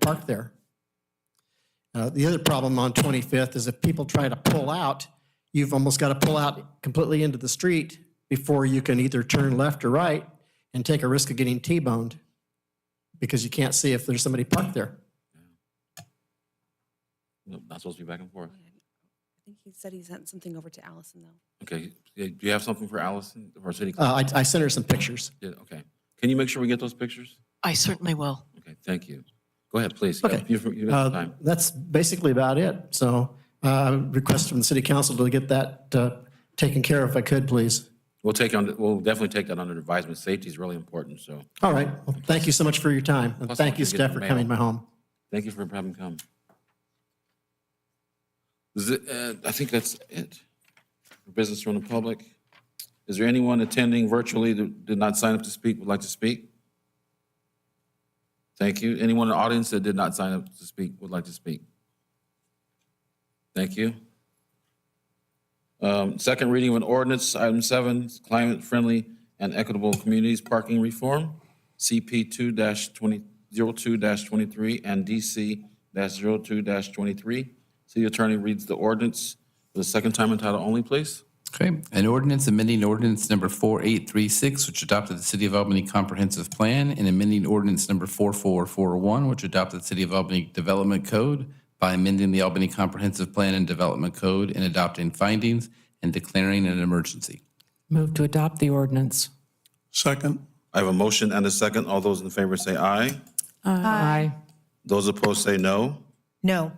park there. Uh, The other problem on 25th is if people try to pull out, you've almost got to pull out completely into the street before you can either turn left or right and take a risk of getting T-boned because you can't see if there's somebody parked there. Nope, Not supposed to be back and forth. I think he said he sent something over to Allison, though. Okay, yeah, do you have something for Allison, for our city? clerk? Uh, I I sent her some pictures. Yeah, okay. Can you make sure we get those pictures? I certainly will. Okay, thank you. Go ahead, please. You have- Okay, you've- you've got Uh, time. That's basically about it. So uh, request from the city council to get that uh, taken care of if I could, please. We'll take on, we'll definitely take that under advisement. Safety is really important, so All right. Well, Thank you so much for your time. And Plus, thank you, I'll get staff, the for mail. coming to my home. thank you for having come. Is it, uh, I think that's it. Business from the public. Is there anyone attending virtually that did not sign up to speak, would like to speak? Thank you. Anyone in the audience that did not sign up to speak, would like to speak? Thank you. Um, Second reading of an ordinance, item seven, climate-friendly and equitable communities parking reform, CP two twenty, zero two twenty-three and DC 2 twenty-three. City Attorney reads the ordinance for the second time in title only, please. Okay, an ordinance amending ordinance number 4836, which adopted the City of Albany Comprehensive Plan, and amending ordinance number 4441, which adopted the City of Albany Development Code by amending the Albany Comprehensive Plan and Development Code and adopting findings and declaring an emergency. Move to adopt the ordinance. Second, I have a motion and a second. All those in favor say aye. Aye. Those opposed say no. No.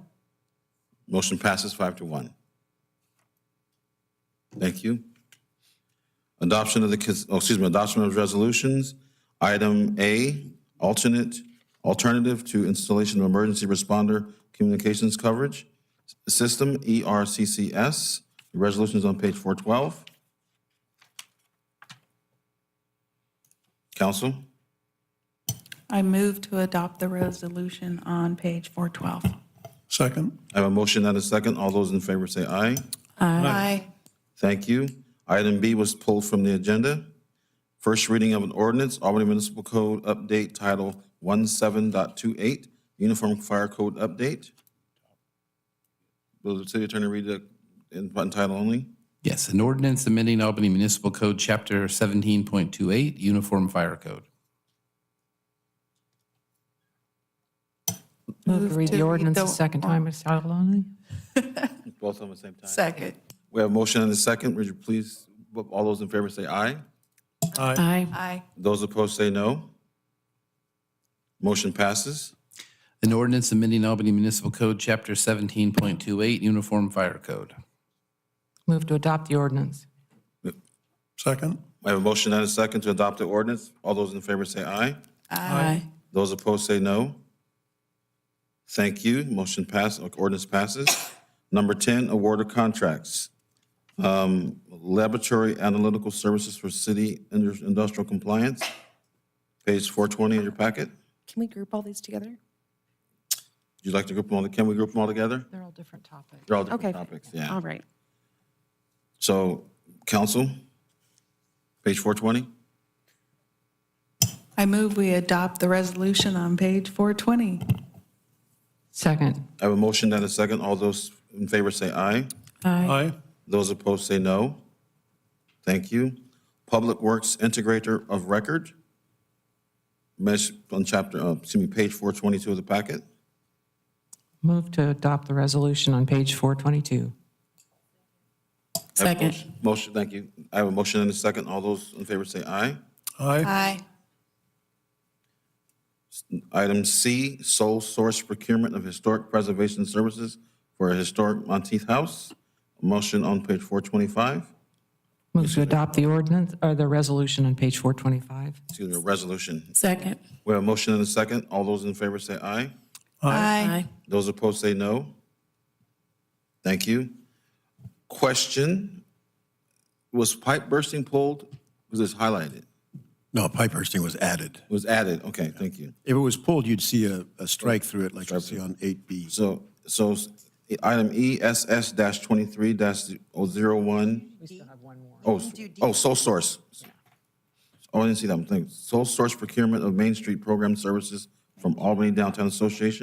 Motion passes five to one. Thank you. Adoption of the, cons- oh, excuse me, adoption of resolutions. Item A, alternate, alternative to installation of emergency responder communications coverage system, E ERCCS. The resolution is on page 412. Council, I move to adopt the resolution on page 412. second, I have a motion and a second. All those in favor say aye. Aye. Thank you. Item B was pulled from the agenda. First reading of an ordinance, Albany Municipal Code Update Title 17.28, Uniform Fire Code Update. Will the city attorney read the, in by title only? Yes, an ordinance amending Albany Municipal Code, Chapter 17.28, Uniform Fire Code. Move to read the ordinance a second time as title only. Both of them at the same time. Second. We have a motion and a second. Would you please, all those in favor say aye. Aye. Aye. Those opposed say no. Motion passes. An ordinance amending Albany Municipal Code, Chapter 17.28, Uniform Fire Code. Move to adopt the ordinance. second, I have a motion and a second to adopt the ordinance. All those in favor say aye. Aye. Those opposed say no. Thank you. Motion pass, uh, ordinance passes. Number 10, award of contracts. Um, Laboratory Analytical Services for City Indus- Industrial Compliance, page 420 in your packet. Would Can we group all these together? you like to group them all, can we group them all together? They're all different topics. They're all Okay. different topics, yeah. All right. So, council, page 420? I move we adopt the resolution on page 420. Second. I have a motion and a second. All those in favor say aye. aye, Those opposed say no. Thank you. Public Works Integrator of Record, mesh on chapter, uh, excuse me, page 422 of the packet. Move to adopt the resolution on page 422. I have a Second. motion- Motion, thank you. I have a motion and a second. All those in favor say aye. aye, Aye. Item C, sole source procurement of historic preservation services for a historic Monteith House. Motion on page 425, Move to adopt the ordinance, or the resolution on page 425. excuse me, a resolution. Second. We have a motion and a second. All those in favor say aye. Aye. Those opposed say no. Thank you. Question, was pipe bursting pulled? Was this highlighted? No, pipe bursting was added. Was added? Okay, thank you. If it was pulled, you'd see a, a strike through it like you see on 8B. So, so item ESS dash twenty-three dash oh zero one. We still have one more. Oh, oh, sole source. Oh, I didn't see that one. Thanks. Sole source procurement of Main Street Program Services from Albany Downtown Association.